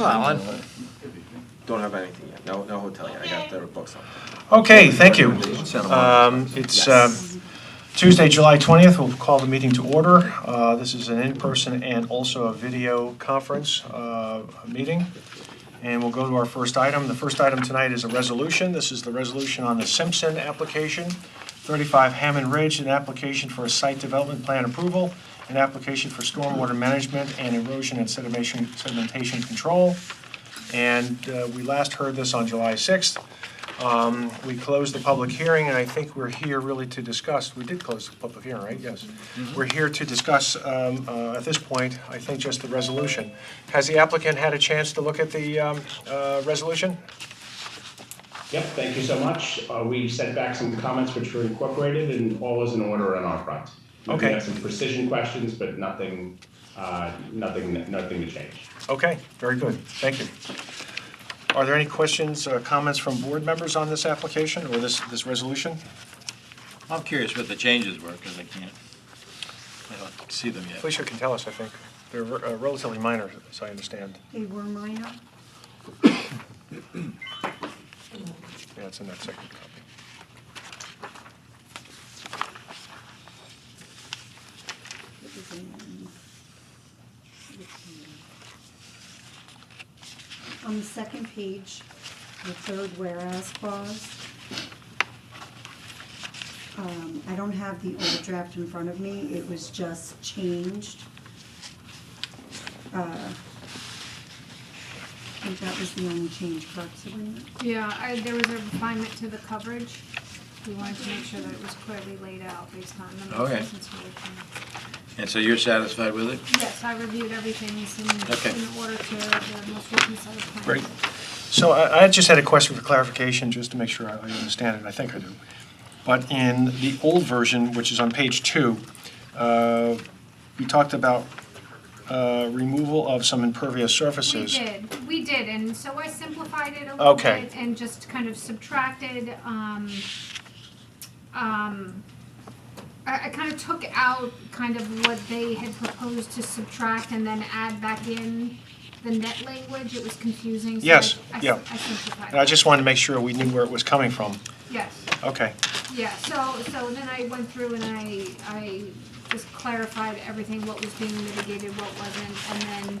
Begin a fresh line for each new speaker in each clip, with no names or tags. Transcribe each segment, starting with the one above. Alan? Don't have anything yet, no, no hotel yet, I got the books on.
Okay, thank you.
Sound
Um, It's um, Tuesday, July 20th. We'll call the meeting to order. Uh, This is an in-person and also a video conference uh, meeting. And we'll go to our first item. The first item tonight is a resolution. This is the resolution on the Simpson application, 35 Hammond Ridge, an application for a site development plan approval, an application for stormwater management and erosion and sedimentation sedimentation control. And uh, we last heard this on July 6th. Um, We closed the public hearing, and I think we're here really to discuss, we did close the public hearing, right? Yes. We're here to discuss, um, uh, at this point, I think just the resolution. Has the applicant had a chance to look at the um, uh, resolution?
Yep, thank you so much. Uh, We sent back some comments which were incorporated, and all is in order on our front.
Okay.
We have some precision questions, but nothing, uh, nothing, nothing to change.
Okay, very good, thank you. Are there any questions or comments from board members on this application or this, this resolution?
I'm curious what the changes were, because I can't, I don't see them yet.
Felicia can tell us, I think. They're uh, relatively minor, as I understand.
They were minor.
Yeah, it's in that second copy.
It was in- On the second page, the third whereas clause. Um, I don't have the old draft in front of me, it was just changed. Uh, I think that was the only change, correct, Sabrina?
Yeah, I, there was a refinement to the coverage. We wanted to make sure that it was clearly laid out based on the most
Okay.
recent submission.
And so you're satisfied with it?
Yes, I reviewed everything it's in,
Okay.
in order to the most recent set of plans.
Great. So I, I just had a question for clarification, just to make sure I I understand it, I think I do. But in the old version, which is on page two, uh, we talked about uh, removal of some impervious
We
surfaces.
did, we did, and so I simplified it a little
Okay.
bit and just kind of subtracted, um, um, I, I kind of took out kind of what they had proposed to subtract and then add back in the net language, it was confusing, so I, I
Yes,
s-
yeah.
I simplified
And I
it.
just wanted to make sure we knew where it was coming from.
Yes,
Okay,
yeah, so, so then I went through and I, I just clarified everything, what was being mitigated, what wasn't, and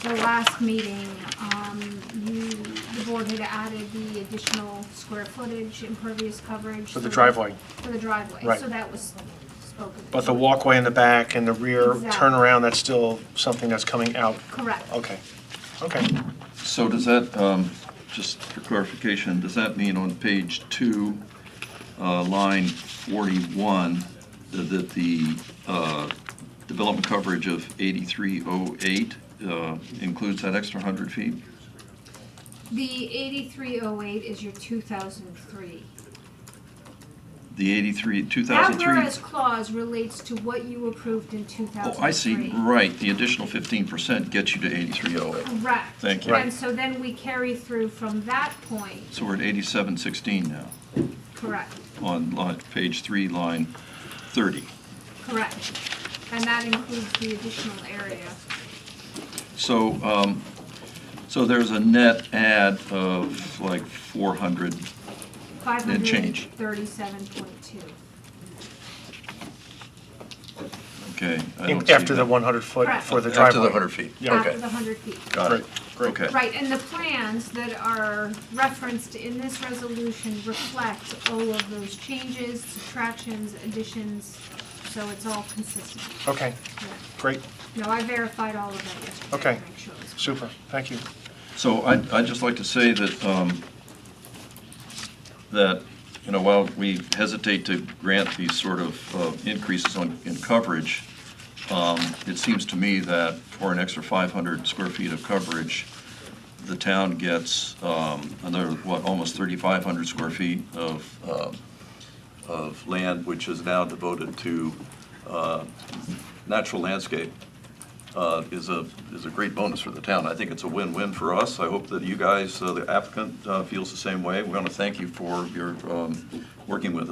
then the last meeting, um, you, the board had added the additional square footage, impervious coverage.
For the
so-
driveway.
For the driveway,
Right.
so that was spoken.
but the walkway in the back and the rear
Exactly.
turnaround, that's still something that's coming out?
Correct.
Okay, okay.
So does that, um, just for clarification, does that mean on page two, uh, line 41, that- that the uh, development coverage of 8308 uh, includes that extra 100 feet?
The eighty-three oh eight is your two thousand three.
The 83,
That
2003?
whereas clause relates to what you approved in two thousand
Oh,
three.
I see, right, the additional 15% gets you to 8308.
Correct.
Thank you.
And so then we carry through from that point,
So we're at 8716 now,
correct,
on line, page three, line 30.
correct. And that includes the additional area.
So, um, so there's a net add of like 400,
Five
Then
hundred and
change.
thirty-seven point two.
okay? I don't see
After the
that.
100 foot
Correct.
for the driveway?
After the 100 feet,
Yeah.
After
okay.
the hundred feet.
Got it,
Great,
okay.
Right, and the plans that are referenced in this resolution reflect all of those changes, subtractions, additions, so it's all consistent.
Okay,
Yeah.
great,
No, I verified all of that yesterday. to
Okay.
Make sure it was
super, thank you.
So I, I'd just like to say that, um, that, you know, while we hesitate to grant these sort of uh, increases on, in coverage, um, it seems to me that for an extra 500 square feet of coverage, the town gets um, another, what, almost 3,500 square feet of, uh, of land, which is now devoted to uh, natural landscape uh, is a, is a great bonus for the town. I think it's a win-win for us. I hope that you guys, uh, the applicant, uh, feels the same way. We want to thank you for your um, working with us.